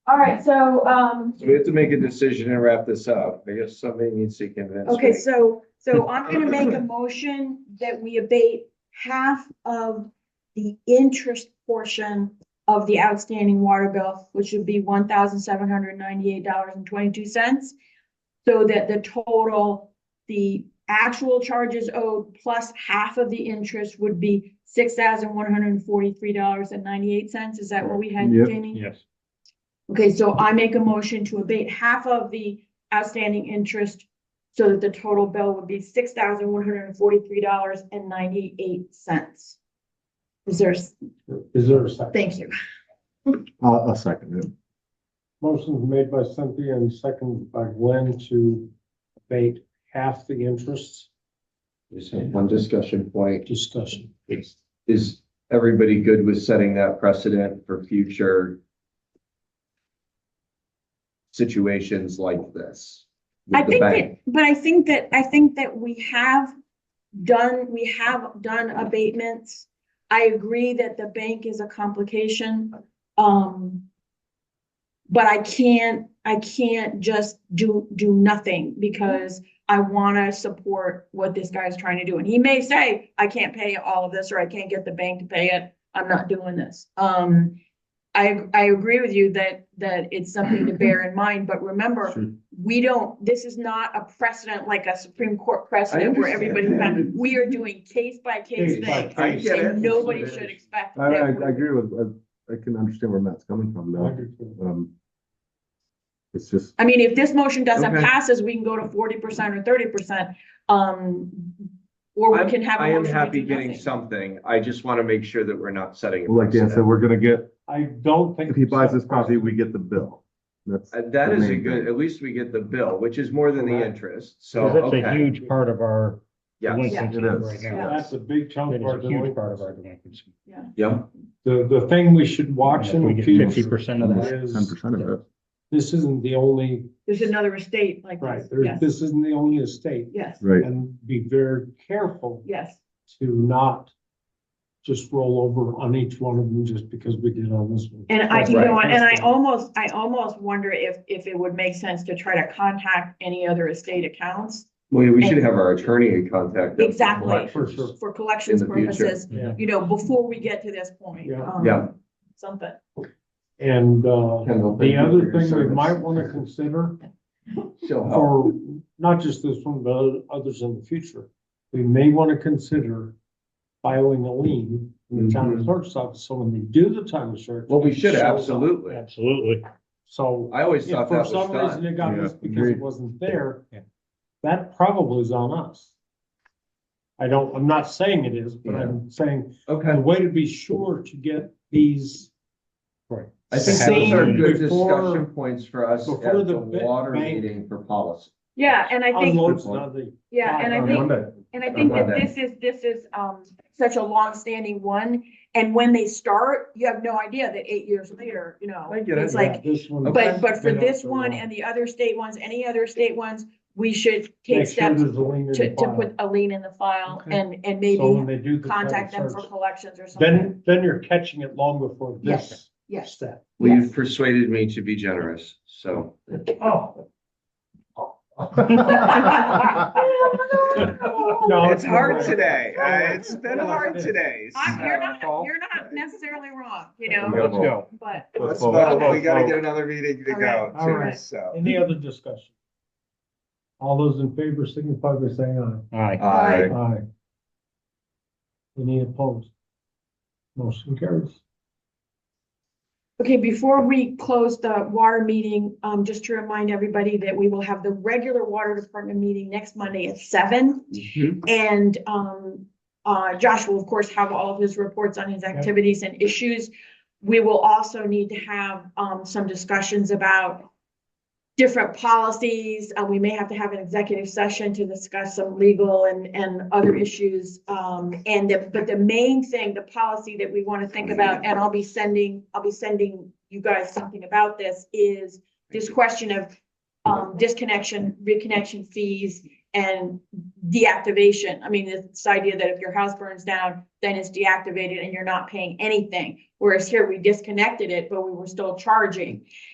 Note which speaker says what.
Speaker 1: All right, so, um,
Speaker 2: So we have to make a decision and wrap this up. I guess somebody needs to convince me.
Speaker 3: Okay, so, so I'm gonna make a motion that we abate half of the interest portion of the outstanding water bill, which would be one thousand seven hundred ninety-eight dollars and twenty-two cents. So that the total, the actual charges owed plus half of the interest would be six thousand one hundred and forty-three dollars and ninety-eight cents. Is that what we had,
Speaker 4: Yep.
Speaker 3: Jamie?
Speaker 5: Yes.
Speaker 3: Okay, so I make a motion to abate half of the outstanding interest so that the total bill would be six thousand one hundred and forty-three dollars and ninety-eight cents. Is there, s-
Speaker 4: Is there a second?
Speaker 3: thank you.
Speaker 4: I'll, I'll second it.
Speaker 6: Motion made by Cynthia and seconded by Glenn to abate half the interest
Speaker 2: Just have One discussion point.
Speaker 6: discussion.
Speaker 2: Is, is everybody good with setting that precedent for future situations like this? with
Speaker 3: I
Speaker 2: the
Speaker 3: think
Speaker 2: bank?
Speaker 3: that, but I think that, I think that we have done, we have done abatements. I agree that the bank is a complication, um. But I can't, I can't just do, do nothing because I wanna support what this guy's trying to do. And he may say, I can't pay all of this, or I can't get the bank to pay it, I'm not doing this. Um, I, I agree with you that, that it's something to bear in mind, but remember, we don't, this is not a precedent like a Supreme Court precedent where
Speaker 2: understand.
Speaker 3: everybody's found, we are doing case by case
Speaker 6: Case by
Speaker 3: things.
Speaker 2: I get it.
Speaker 3: And nobody should expect
Speaker 4: I, I, I
Speaker 3: that.
Speaker 4: agree with, I, I can understand where Matt's coming from though. Um, it's just,
Speaker 3: I mean, if this motion doesn't
Speaker 2: Okay.
Speaker 3: pass, us, we can go to forty percent or thirty percent, um, or
Speaker 2: I'm-
Speaker 3: we can have. a
Speaker 2: I am
Speaker 3: motion to
Speaker 2: happy
Speaker 3: do
Speaker 2: getting
Speaker 3: nothing.
Speaker 2: something. I just want to make sure that we're not setting. a
Speaker 4: like Dan said,
Speaker 2: precedent.
Speaker 4: we're gonna get,
Speaker 6: I don't think.
Speaker 4: if he buys this property, we get the bill. That's,
Speaker 2: Uh, That
Speaker 4: the
Speaker 2: is a
Speaker 4: main
Speaker 2: good,
Speaker 4: thing.
Speaker 2: at least we get the bill, which is more than the
Speaker 6: Correct.
Speaker 2: interest, so,
Speaker 5: Because that's a
Speaker 2: okay.
Speaker 5: huge part of our
Speaker 2: Yes.
Speaker 5: delinquency
Speaker 4: Yeah, it is.
Speaker 5: right now.
Speaker 6: That's a big
Speaker 5: That
Speaker 6: chunk
Speaker 5: is
Speaker 6: of our
Speaker 5: a huge part of our
Speaker 6: delinquency.
Speaker 5: delinquency.
Speaker 2: Yep.
Speaker 6: The, the thing we should watch
Speaker 5: If we
Speaker 6: in the
Speaker 5: get fifty
Speaker 6: future
Speaker 5: percent of that,
Speaker 4: ten
Speaker 6: is,
Speaker 4: percent of it.
Speaker 6: this isn't the only,
Speaker 3: There's another estate like
Speaker 6: right,
Speaker 3: this,
Speaker 6: there's,
Speaker 3: yes,
Speaker 6: this isn't the only estate.
Speaker 3: yes,
Speaker 4: Right.
Speaker 6: And be very careful
Speaker 3: yes,
Speaker 6: to not just roll over on each one of them just because we did on this one.
Speaker 3: and I,
Speaker 5: That's
Speaker 3: you know,
Speaker 5: right.
Speaker 3: and I almost, I almost wonder if, if it would make sense to try to contact any other estate accounts
Speaker 2: Well, we should have our attorney in contact. us.
Speaker 3: Exactly.
Speaker 6: For sure.
Speaker 3: for collections
Speaker 2: In the future.
Speaker 3: purposes,
Speaker 6: Yeah.
Speaker 3: you know, before we get to this point.
Speaker 6: Yeah.
Speaker 3: um,
Speaker 2: Yeah.
Speaker 3: Something.
Speaker 6: And, uh,
Speaker 2: Kendall, thank
Speaker 6: the
Speaker 2: you for
Speaker 6: other
Speaker 2: your
Speaker 6: thing we
Speaker 2: service.
Speaker 6: might want to consider
Speaker 2: She'll help.
Speaker 6: for not just this one, but oth- others in the future, we may want to consider filing a lien in the town
Speaker 2: Mhm.
Speaker 6: clerk's office. So when they do the town search.
Speaker 2: Well, we
Speaker 6: it
Speaker 2: should,
Speaker 6: shows up.
Speaker 2: absolutely.
Speaker 5: absolutely.
Speaker 6: So
Speaker 2: I always
Speaker 6: if
Speaker 2: thought
Speaker 6: for
Speaker 2: that
Speaker 6: some
Speaker 2: was
Speaker 6: reason
Speaker 2: done.
Speaker 6: it got
Speaker 4: Yeah,
Speaker 6: missed because it
Speaker 4: agreed.
Speaker 6: wasn't there,
Speaker 5: Yeah.
Speaker 6: that probably is on us. I don't, I'm not saying it is, but I'm saying the
Speaker 2: Okay,
Speaker 6: way to be sure to get these
Speaker 2: I think those are
Speaker 5: Same
Speaker 2: good
Speaker 6: before-
Speaker 2: discussion points for us at
Speaker 6: before
Speaker 2: the
Speaker 6: the ba-
Speaker 2: water
Speaker 6: bank-
Speaker 2: meeting for policy.
Speaker 3: Yeah, and I think,
Speaker 6: unloads on the
Speaker 3: yeah, and I
Speaker 6: on
Speaker 3: think,
Speaker 6: Monday.
Speaker 3: and I think that
Speaker 2: Monday.
Speaker 3: this is, this is, um, such a long-standing one. And when they start, you have no idea that eight years later, you know,
Speaker 2: I get it,
Speaker 3: it's like,
Speaker 6: This one-
Speaker 2: Okay.
Speaker 3: but, but for
Speaker 6: Been out
Speaker 3: this
Speaker 6: for a
Speaker 3: one
Speaker 6: while.
Speaker 3: and the other state ones, any other state ones, we should
Speaker 6: Make
Speaker 3: take
Speaker 6: sure
Speaker 3: steps
Speaker 6: there's a lien in
Speaker 3: to,
Speaker 6: the
Speaker 3: to
Speaker 6: file.
Speaker 3: put a lien in the file
Speaker 6: Okay.
Speaker 3: and, and
Speaker 6: So when
Speaker 3: maybe
Speaker 6: they do the title
Speaker 3: contact them for
Speaker 6: search,
Speaker 3: collections or something.
Speaker 6: Then, then you're catching it long before this
Speaker 3: Yes,
Speaker 6: step.
Speaker 2: Well,
Speaker 3: Yes.
Speaker 2: you've persuaded me to be generous, so.
Speaker 6: Oh.
Speaker 3: No,
Speaker 6: No,
Speaker 2: It's hard today. Uh, It's been
Speaker 6: Yeah.
Speaker 2: hard today.
Speaker 3: I, you're not,
Speaker 2: So-
Speaker 3: you're not necessarily wrong, you know,
Speaker 2: Yeah.
Speaker 5: Let's go.
Speaker 3: but.
Speaker 2: Let's
Speaker 4: Well,
Speaker 2: vote.
Speaker 4: well,
Speaker 2: We gotta
Speaker 4: well,
Speaker 2: get another meeting to
Speaker 3: All right,
Speaker 2: go
Speaker 6: all
Speaker 2: to,
Speaker 6: right.
Speaker 2: so.
Speaker 6: Any other discussion? All those in favor signify by saying
Speaker 5: Aye.
Speaker 2: Aye.
Speaker 6: aye. Aye. Any opposed? Motion carries.
Speaker 3: Okay, before we close the water meeting, um, just to remind everybody that we will have the regular water department meeting next Monday at seven.
Speaker 2: Mhm.
Speaker 3: And, um, uh, Josh will of course have all of his reports on his activities and issues. We will also need to have, um, some discussions about different policies. Uh, we may have to have an executive session to discuss some legal and, and other issues. Um, and the, but the main thing, the policy that we want to think about, and I'll be sending, I'll be sending you guys something about this, is this question of um, disconnection, reconnection fees and deactivation. I mean, this idea that if your house burns down, then it's deactivated and you're not paying anything. Whereas here, we disconnected it, but we were still charging.